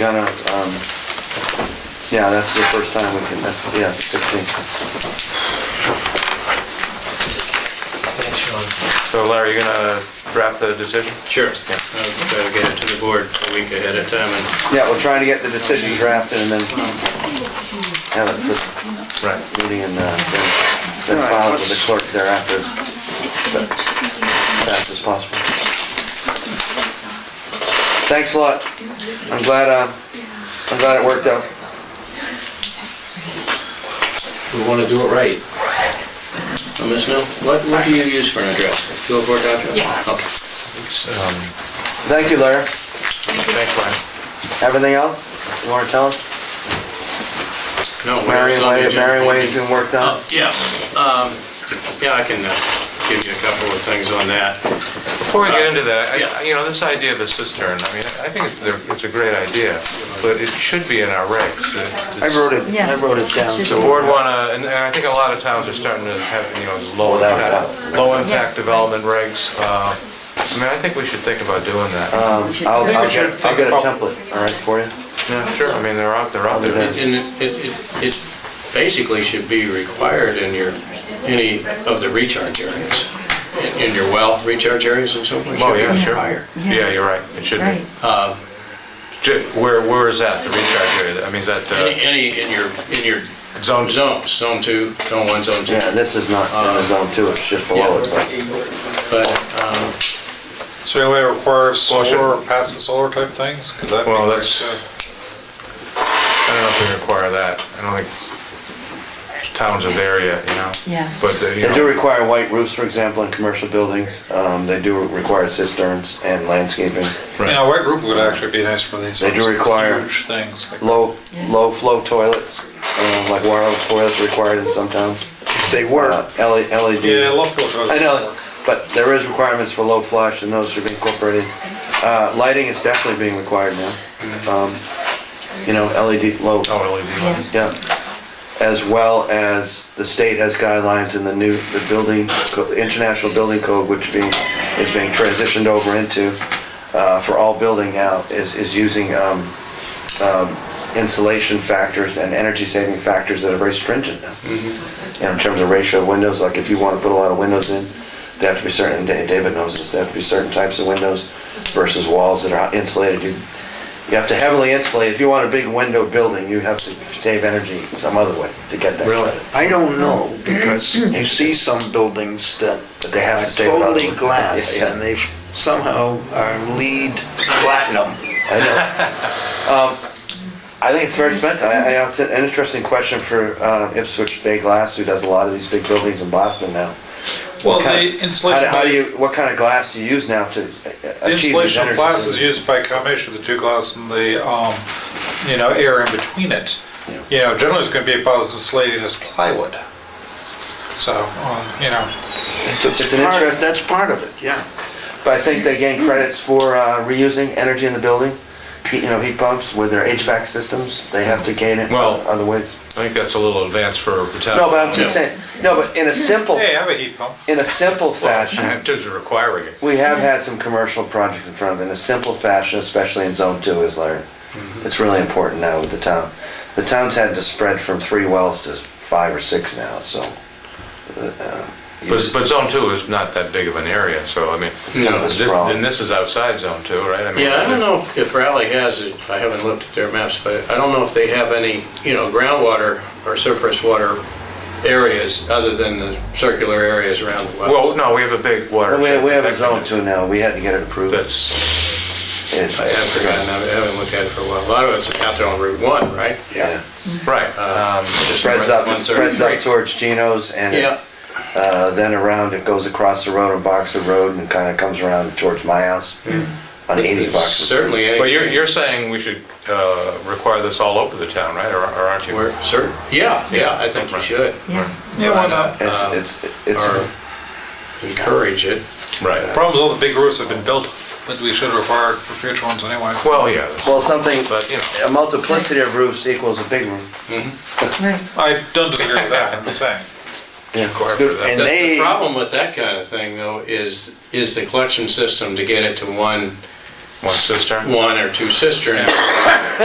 Gonna, um, yeah, that's the first time we can, that's, yeah, the 16th. Thanks, Sean. So Larry, you're gonna draft the decision? Sure. I'll try to get it to the board a week ahead of time and Yeah, we're trying to get the decision drafted and then have it for Right. the meeting and uh, then then file it with the clerk thereafter as fast as possible. Thanks a lot. I'm glad, uh, I'm glad it worked out. we want to do it right. Uh, Ms. Mill, what, what do you use for an address? oh Go for address? Yes. Okay. Thank you, Larry. Um, Thanks, Larry. Everything else you wanna tell us? No, where else Marion on the Way, agenda? Marion Way has been worked on. Oh, Yeah, um, yeah, I can uh, give you a couple of things on that. Uh, Before we get into that, I- Yeah. I- you know, this idea of a cistern, I mean, I think it's a- it's a great idea, but it should be in our regs. It- I wrote it, I wrote it down. The board wanna, and and I think a lot of towns are starting to have, you know, these low Without a impact, low impact development regs. uh, I mean, I think we should think about doing that. Um, I'll, think we I'll should get, I'll get a think template, all right, for you. Yeah, sure, I mean, they're out, they're out there. And it- it, it, it basically should be required in your, any of the recharge areas, in- in your well recharge areas and so forth. Oh, should be yeah, sure. required. Yeah, you're right, it should be. Right. Uh, Ju- Where, where is that, the recharge area? I mean, is that Any, uh, any in your, in your zone two? zones, zone two, zone one, zone two. Yeah, Uh, this is not in the zone two, it's just below it, but But, um, So anyway, it requires Well, should- solar, or pass the solar type things? 'Cause that'd be Well, great, that's- too. I don't know if we require that. I don't think towns are there yet, you know? Yeah. But, uh, you They do know, require white roofs, for example, in commercial buildings. Um, they do require cisterns and landscaping. Right. You know, white roof would actually be nice for these. They do sorts of require Huge things. like- Low, low flow toilets, um, like wireless toilets required in some towns. They Uh, L- LED. Yeah, I love filters. I know, but there is requirements for low flash and those should be incorporated. Uh, lighting is definitely being required now. Um, you know, LED, low oh, LED lights. Yeah, as well as the state has guidelines in the new, the building, co- the international building code, which being, is being transitioned over into, uh, for all building now, is, is using, um, um, insulation factors and energy saving factors that are very stringent now. You know, in terms of ratio of windows, like if you wanna put a lot of windows in, they have to be certain, and Da- David knows this, they have to be certain types of windows versus walls that are insulated. You you have to heavily insulate, if you want a big window building, you have to save energy some other way to get that. Really? I don't know, because you see some buildings that But they have are to save it other totally way. glass, Yeah, yeah. and they somehow are lead platinum. I know. Um, I think it's very expensive. I, I, it's an interesting question for uh, Ipswich Bay Glass, who does a lot of these big buildings in Boston now. Well, What kind- the insulation. How do- how do you, what kind of glass do you use now to uh, The achieve these insulation of energy? glass is used by a combination of the two glass and the, um, you know, air in between it. You know, generally it's gonna be about as insulating as plywood. So, um, you know, It's an Part of- interest, That's part of it, yeah. but I think they gain credits for uh, reusing energy in the building. Heat- You know, heat pumps with their HVAC systems, they have to gain it Well- other ways. I think that's a little advanced for the town. No, but I'm just saying, no, but in a simple, uh, hey, I have a heat pump. in a simple fashion. In terms of requiring it. We have had some commercial projects in front of it in a simple fashion, especially in zone two, is learned. Mm-hmm. It's really important now with the town. The town's had to spread from three wells to five or six now, so. uh, you But, just- but zone two is not that big of an area, so I mean, kind of a this- sprawl. then this is outside zone two, right? I mean, yeah, I don't know if- if Raleigh has, it. I haven't looked at their maps, but I don't know if they have any, you know, groundwater or surface water areas other than the circular areas around the wells. Well, no, we have a big water. We we have a zone two now, we had to get it approved. That's, It- I have forgotten, I haven't looked at it for a while. A lot of it's out there on Route 1, right? Yeah, right. um, Just spreads north of up, it spreads 133. up towards Geno's and it- Yeah, uh, then around, it goes across the road on Boxer Road and kind of comes around towards my house on eighty Boxer. Road. certainly anything. But you're, you're saying we should uh, require this all over the town, right? Or or aren't you? Where- cer- yeah, yeah, I think you should. Yeah. Yeah, why not? Um, It's, it's, it's. Or encourage it. Right. Problems, all the big roofs have been built, that we should require for future ones anyway. Well, yeah, Well, something, but, you know. a multiplicity of roofs equals a big roof. Right. I don't disagree with that, I'm just saying. Yeah, Require it's for good. that. And The- they- The problem with that kind of thing, though, is, is the collection system to get it to one, One cistern? one or two cisterns.